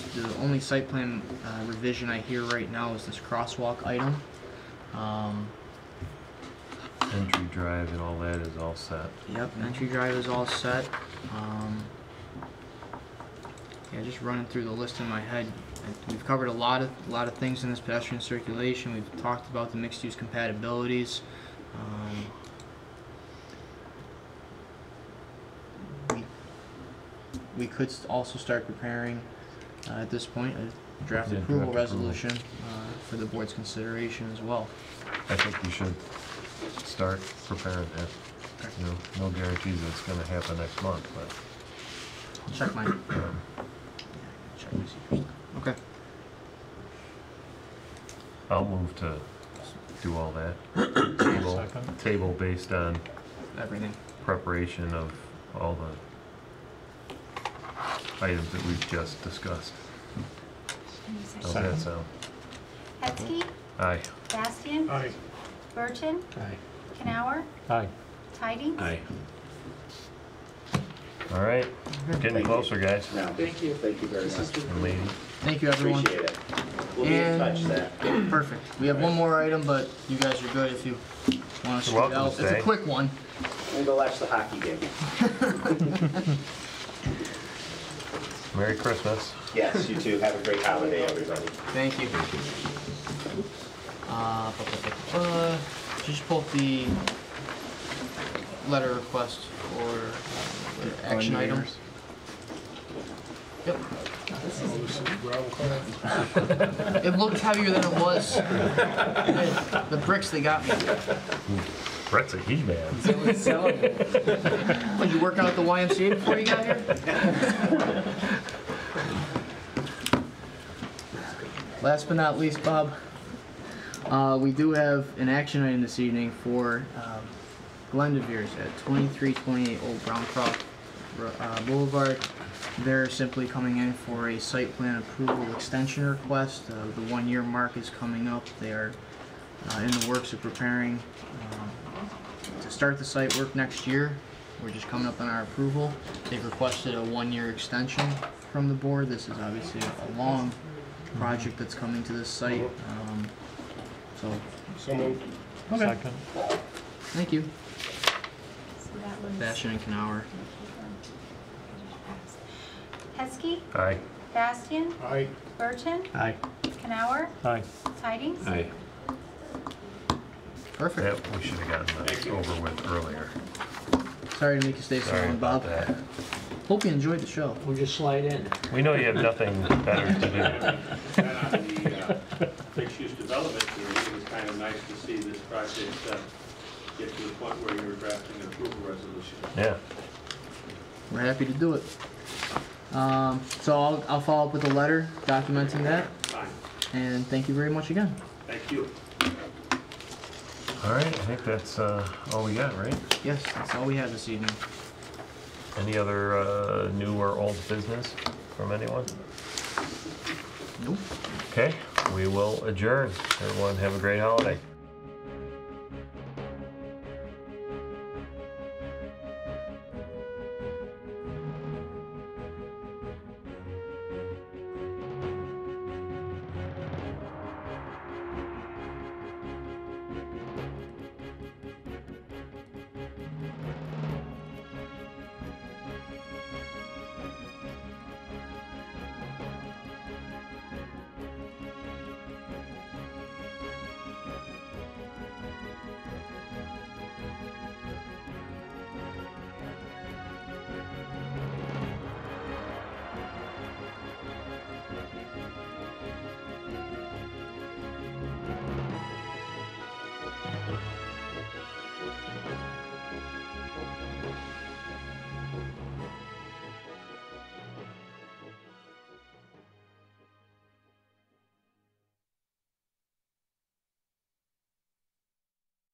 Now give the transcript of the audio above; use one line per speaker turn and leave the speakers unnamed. the only site plan uh, revision I hear right now is this crosswalk item. Um,
Entry drive and all that is all set.
Yep, entry drive is all set. Um, yeah, just running through the list in my head. I- We've covered a lot of a lot of things in this pedestrian circulation. We've talked about the mixed-use compatibilities. Um, Um, we, we could s- also start preparing uh, at this point a draft
Yeah,
approval
draft approval.
resolution Uh, for the board's consideration as well.
I think we should start preparing that. You know, no guarantees that it's gonna happen next month, but,
I'll check my
um,
check my secret. Okay.
I'll move to do all that. Table,
Second.
table based on
Everything.
preparation of all the items that we've just discussed. How's that
Second.
sound?
Hetzke,
Aye.
Bastian,
Aye.
Burton,
Aye.
Canower,
Aye.
Tidings.
Aye.
All right, getting closer, guys
No, thank you. Thank you very much.
and ladies.
Thank you, everyone.
Appreciate it. We'll be in touch then.
Perfect. We have one more item, but you guys are good if you want to
You're
scoot
welcome to
out. It's a
stay.
quick one.
We'll go watch the hockey game.
Merry Christmas.
Yes, you too. Have a great holiday, everybody.
Thank you. Uh, bu- bu- bu- uh, Just pull up the letter request or uh, action items. Yep.
Oh, this is gravel car.
It looked heavier than it was. The- The bricks they got me.
Brett's a he-man.
Did you work out at the YMCA before you got here? Last but not least, Bob, uh, we do have an action item this evening for um, Glendevere's at 2328 Old Browncroft uh, Boulevard. They're simply coming in for a site plan approval extension request. Uh, the one-year mark is coming up. They are uh, in the works of preparing um, to start the site work next year. We're just coming up on our approval. They've requested a one-year extension from the board. This is obviously a long project that's coming to this site. Um, So,
So moved. Second.
thank you,
So that was-
Bastion and Canower.
Hetzke,
Aye.
Bastian,
Aye.
Burton,
Aye.
Canower,
Aye.
Tidings.
Aye.
Perfect.
That we should have gotten that over with earlier.
Sorry to make you stay so
Sorry
long,
about
Bob.
that.
Hope you enjoyed the show.
We'll just slide in.
We know you have nothing better to
And on the uh, mixed-use development, committee, it was kind of nice to see this project uh, get to the point where you were drafting an approval resolution.
do. Yeah.
We're happy to do it. Um, So I'll, I'll follow up with a letter documenting that,
Fine,
and thank you very much again.
thank you.
All right, I think that's uh, all we got, right?
Yes, that's all we have this evening.
Any other uh, new or old business from anyone?
Nope.
Okay, we will adjourn. Everyone have a great holiday.